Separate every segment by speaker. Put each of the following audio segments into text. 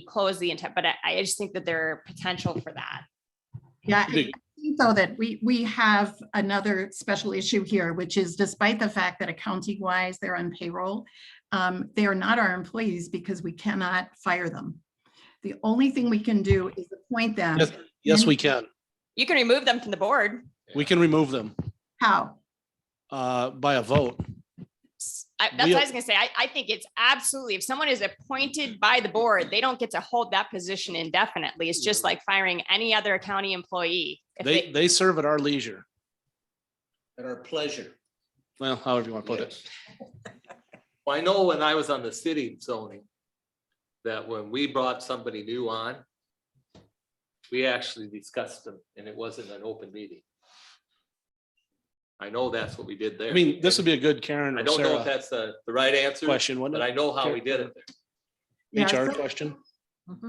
Speaker 1: close the intent, but I, I just think that there are potential for that.
Speaker 2: Yeah, I
Speaker 3: Big.
Speaker 2: think though that we, we have another special issue here, which is despite the fact that accounting wise, they're on payroll, um, they are not our employees because we cannot fire them. The only thing we can do is appoint them.
Speaker 3: Yes. Yes, we can.
Speaker 1: You can remove them from the board.
Speaker 3: We can remove them
Speaker 2: How?
Speaker 3: uh, by a vote.
Speaker 1: S- I- That's
Speaker 3: We-
Speaker 1: what I was gonna say. I, I think it's absolutely, if someone is appointed by the board, they don't get to hold that position indefinitely. It's just like firing any other county employee. If
Speaker 3: They, they serve at our leisure.
Speaker 4: at our pleasure.
Speaker 3: Well, however you want to put it.
Speaker 4: Well, I know when I was on the city zoning, that when we brought somebody new on, we actually discussed them and it wasn't an open meeting. I know that's what we did there.
Speaker 3: I mean, this would be a good Karen
Speaker 4: I
Speaker 3: or
Speaker 4: don't know
Speaker 3: Sarah
Speaker 4: if that's the, the right answer,
Speaker 3: question,
Speaker 4: but
Speaker 3: wouldn't
Speaker 4: I
Speaker 3: it?
Speaker 4: know how we did it.
Speaker 2: Yeah,
Speaker 4: there.
Speaker 3: HR
Speaker 2: so-
Speaker 3: question?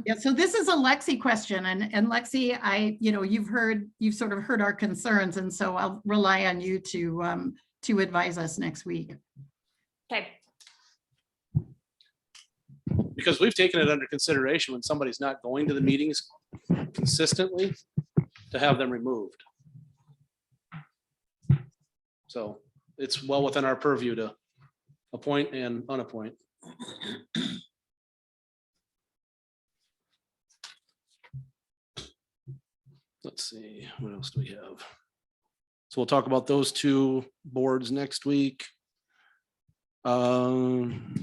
Speaker 2: Yeah, so this is a Lexi question and, and Lexi, I, you know, you've heard, you've sort of heard our concerns and so I'll rely on you to, um, to advise us next week.
Speaker 1: they- Okay,
Speaker 3: Because we've taken it under consideration when somebody's not going to the meetings consistently to have them removed. So it's well within our purview to appoint and unappoint. Let's see, what else do we have? So we'll talk about those two boards next week. Um,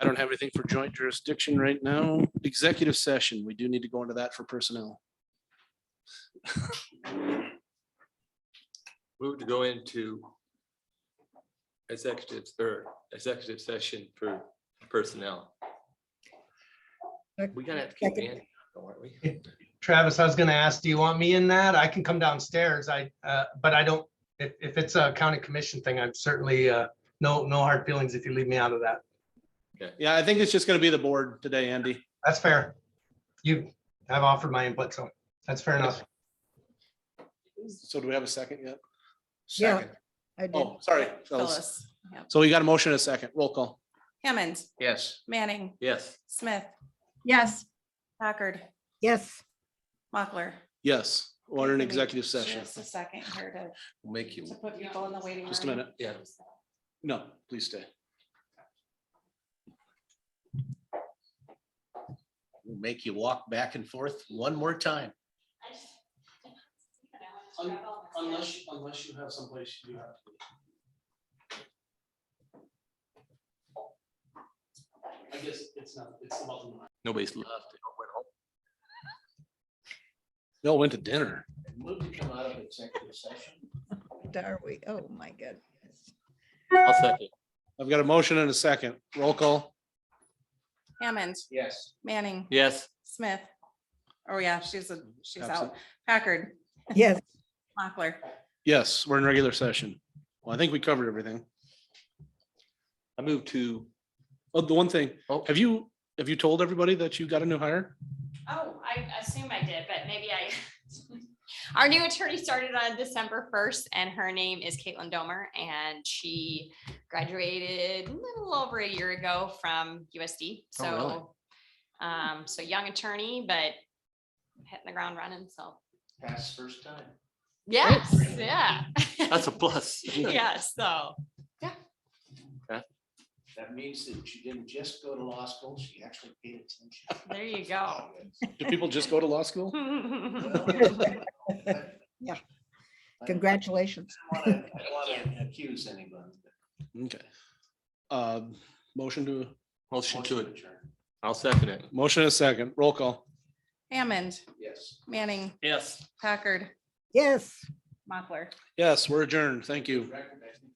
Speaker 3: I don't have anything for joint jurisdiction right now. Executive session, we do need to go into that for personnel.
Speaker 4: Move to go into executive or executive session for personnel. We gotta have to keep in, aren't we?
Speaker 5: Travis, I was gonna ask, do you want me in that? I can come downstairs. I, uh, but I don't, if, if it's a county commission thing, I'm certainly, uh, no, no hard feelings if you leave me out of that.
Speaker 3: Yeah, I think it's just gonna be the board today, Andy.
Speaker 5: That's fair. You have offered my input, so that's fair enough.
Speaker 3: So do we have a second yet?
Speaker 6: Yeah, I did.
Speaker 3: Oh, sorry. fellas.
Speaker 7: Phyllis. Yep.
Speaker 3: So we got a motion and a second. Roll call.
Speaker 7: Hammond,
Speaker 4: Yes.
Speaker 7: Manning,
Speaker 4: Yes.
Speaker 7: Smith,
Speaker 2: Yes,
Speaker 7: Packard,
Speaker 6: Yes,
Speaker 7: Mochler.
Speaker 3: Yes, order an
Speaker 7: Give me
Speaker 3: executive session.
Speaker 7: Just a second here
Speaker 4: Make
Speaker 7: to, to put people in the waiting room.
Speaker 3: Just a minute.
Speaker 4: Yeah.
Speaker 3: No, please stay.
Speaker 8: We'll make you walk back and forth one more time.
Speaker 3: Unless, unless you have someplace you have. I guess it's not, it's not.
Speaker 4: Nobody's left.
Speaker 3: Bill went to dinner.
Speaker 8: Move to come out of executive session.
Speaker 6: are we? Oh, my God.
Speaker 4: I'll second.
Speaker 3: I've got a motion and a second. Roll call.
Speaker 7: Hammond,
Speaker 8: Yes.
Speaker 7: Manning,
Speaker 4: Yes.
Speaker 7: Smith. Oh, yeah, she's, a she's
Speaker 3: Absent.
Speaker 7: out. Packard,
Speaker 6: Yes.
Speaker 7: Mochler.
Speaker 3: Yes, we're in regular session. Well, I think we covered everything.
Speaker 4: I move to,
Speaker 3: Oh, the one thing,
Speaker 4: Oh.
Speaker 3: have you, have you told everybody that you got a new hire?
Speaker 1: Oh, I assume I did, but maybe I. Our new attorney started on December first and her name is Caitlin Domer and she graduated a little over a year ago from USD.
Speaker 3: Oh, really?
Speaker 1: So, um, so young attorney, but hitting the ground running. So,
Speaker 8: Pass first time.
Speaker 1: yes, yeah.
Speaker 4: that's a plus.
Speaker 1: Yeah, so
Speaker 8: That means that you didn't just go to law school, she actually paid attention.
Speaker 1: there you go.
Speaker 3: Do people just go to law school?
Speaker 6: Yeah.
Speaker 8: I don't
Speaker 6: Congratulations.
Speaker 8: wanna- I don't want to accuse anyone. but
Speaker 3: Okay. Uh, motion to,
Speaker 4: Motion to it.
Speaker 8: adjourn.
Speaker 4: I'll second it.
Speaker 3: motion and a second. Roll call.
Speaker 7: Hammond,
Speaker 8: Yes.
Speaker 7: Manning,
Speaker 4: Yes.
Speaker 7: Packard,
Speaker 6: Yes.
Speaker 7: Mochler.
Speaker 3: Yes, we're adjourned. Thank you.
Speaker 8: Record, I think.